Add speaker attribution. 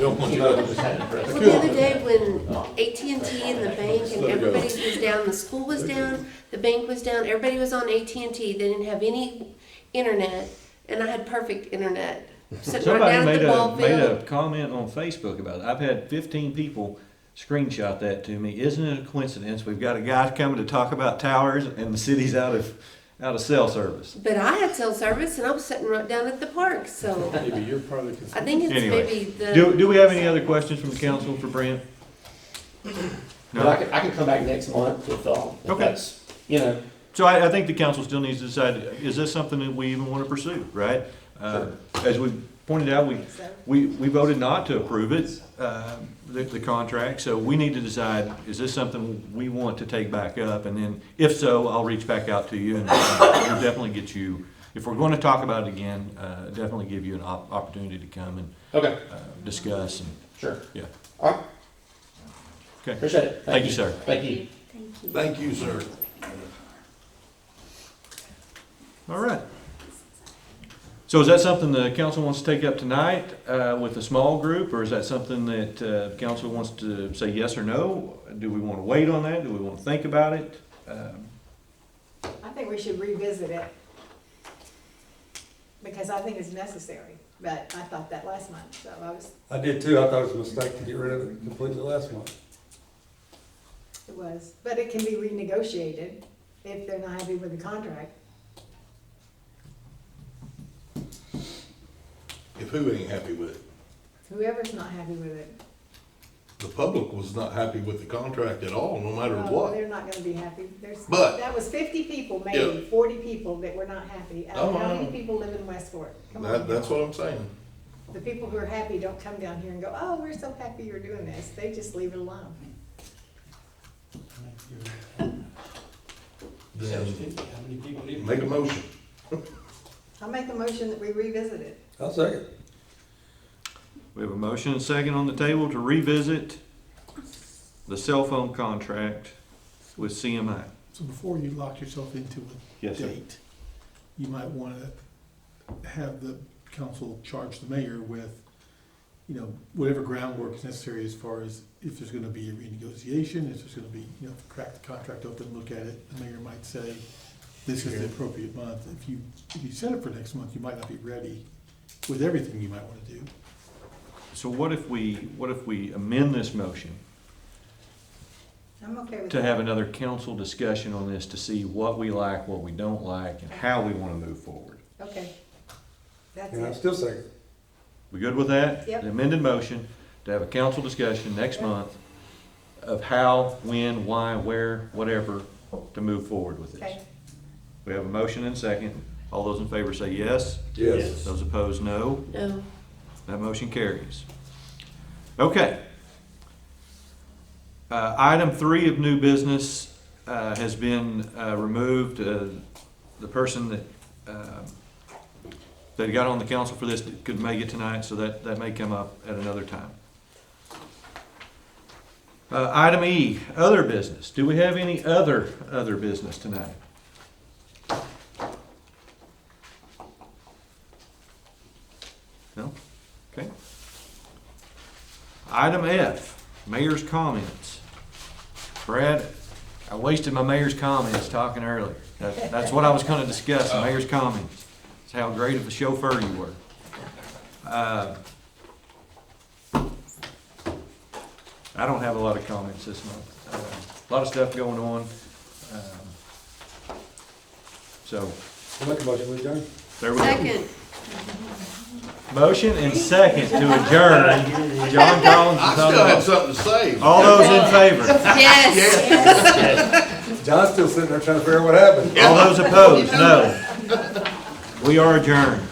Speaker 1: don't want you to.
Speaker 2: Well, the other day when AT&T and the bank and everybody was down, the school was down, the bank was down, everybody was on AT&T, they didn't have any internet, and I had perfect internet. Sitting right
Speaker 3: Somebody
Speaker 2: down at
Speaker 3: made
Speaker 2: the
Speaker 3: a,
Speaker 2: ball
Speaker 3: made
Speaker 2: field.
Speaker 3: a comment on Facebook about it. I've had fifteen people screenshot that to me. Isn't it a coincidence? We've got a guy coming to talk about towers and the city's out of, out of cell service.
Speaker 2: But I had cell service and I was sitting right down at the park, so
Speaker 1: Maybe you're part of the
Speaker 2: I
Speaker 1: concern.
Speaker 2: think it's
Speaker 3: Anyway,
Speaker 2: maybe the. Oh,
Speaker 3: Do, do we have any other questions from the council for Brent?
Speaker 4: But I can, I can come back next month if, um, if
Speaker 3: Okay.
Speaker 4: that's, you know,
Speaker 3: So I, I think the council still needs to decide, is this something that we even want to pursue, right? Uh, As we pointed out, we, we, we voted not to approve it, uh, the, the contract, so we need to decide, is this something we want to take back up? And then, if so, I'll reach back out to you and uh, we'll definitely get you, if we're going to talk about it again, uh, definitely give you an op- opportunity to come and
Speaker 4: okay,
Speaker 3: uh, discuss and,
Speaker 4: sure.
Speaker 3: yeah.
Speaker 4: All right,
Speaker 3: Okay,
Speaker 4: appreciate it.
Speaker 3: thank you, sir.
Speaker 4: Thank you.
Speaker 2: Thank you.
Speaker 5: Thank you, sir.
Speaker 3: All right. So is that something the council wants to take up tonight uh, with a small group, or is that something that uh, council wants to say yes or no? Do we want to wait on that? Do we want to think about it? Um,
Speaker 6: I think we should revisit it. Because I think it's necessary, but I thought that last month, so I was,
Speaker 7: I did too. I thought it was a mistake to get rid of it completely last month.
Speaker 6: it was, but it can be renegotiated if they're not happy with the contract.
Speaker 5: If who ain't happy with it?
Speaker 6: Whoever's not happy with it.
Speaker 5: The public was not happy with the contract at all, no matter
Speaker 2: Oh,
Speaker 6: well,
Speaker 5: what.
Speaker 6: oh, They're not gonna be happy. There's,
Speaker 5: But-
Speaker 6: that was fifty people,
Speaker 5: Yeah.
Speaker 6: maybe forty people that were not happy. Out of
Speaker 5: Oh,
Speaker 6: How
Speaker 5: I
Speaker 6: many
Speaker 5: know.
Speaker 6: people live in Westport? Come
Speaker 5: That,
Speaker 6: on.
Speaker 5: that's what I'm saying.
Speaker 6: The people who are happy don't come down here and go, oh, we're so happy you're doing this. They just leave it alone.
Speaker 5: Then
Speaker 8: How many people live?
Speaker 5: make a motion.
Speaker 6: I'll make a motion that we revisit it.
Speaker 7: I'll second.
Speaker 3: We have a motion and second on the table to revisit the cell phone contract with CMI.
Speaker 9: So before you lock yourself into a
Speaker 3: Yes,
Speaker 9: date, you might want to have the council charge the mayor with, you know, whatever groundwork is necessary as far as if there's going to be a renegotiation, if there's going to be, you know, crack the contract open, look at it. The mayor might say, this is the appropriate month. If you, if you set it for next month, you might not be ready with everything you might want to do.
Speaker 3: So what if we, what if we amend this motion
Speaker 6: I'm okay with that.
Speaker 3: to have another council discussion on this to see what we like, what we don't like, and how we want to move forward?
Speaker 6: Okay. That's
Speaker 7: And I
Speaker 6: it.
Speaker 7: still second.
Speaker 3: We good with that?
Speaker 6: Yep.
Speaker 3: The amended motion to have a council discussion next month of how, when, why, where, whatever, to move forward with
Speaker 6: Okay.
Speaker 3: this. We have a motion and second. All those in favor say yes.
Speaker 7: Yes.
Speaker 3: Those opposed, no.
Speaker 2: No,
Speaker 3: That motion carries. Okay. Uh, Item three of new business uh, has been uh, removed. Uh, The person that, um, that got on the council for this could make it tonight, so that, that may come up at another time. Uh, Item E, other business. Do we have any other, other business tonight? No? Okay. Item F, mayor's comments. Brad, I wasted my mayor's comments talking earlier. That- That's what I was gonna discuss, the mayor's comments. It's how great of a chauffeur you were. Uh, I don't have a lot of comments this month. Uh, A lot of stuff going on. Um, So,
Speaker 7: I'll make a motion, we adjourn.
Speaker 3: there we go.
Speaker 2: second.
Speaker 3: Motion and second to adjourn. John Collins
Speaker 5: I
Speaker 3: is
Speaker 5: still had
Speaker 3: on the
Speaker 5: something to say.
Speaker 3: All those in favor?
Speaker 2: Yes.
Speaker 7: John's still sitting there trying to figure out what happened.
Speaker 3: All those opposed? No. We are adjourned.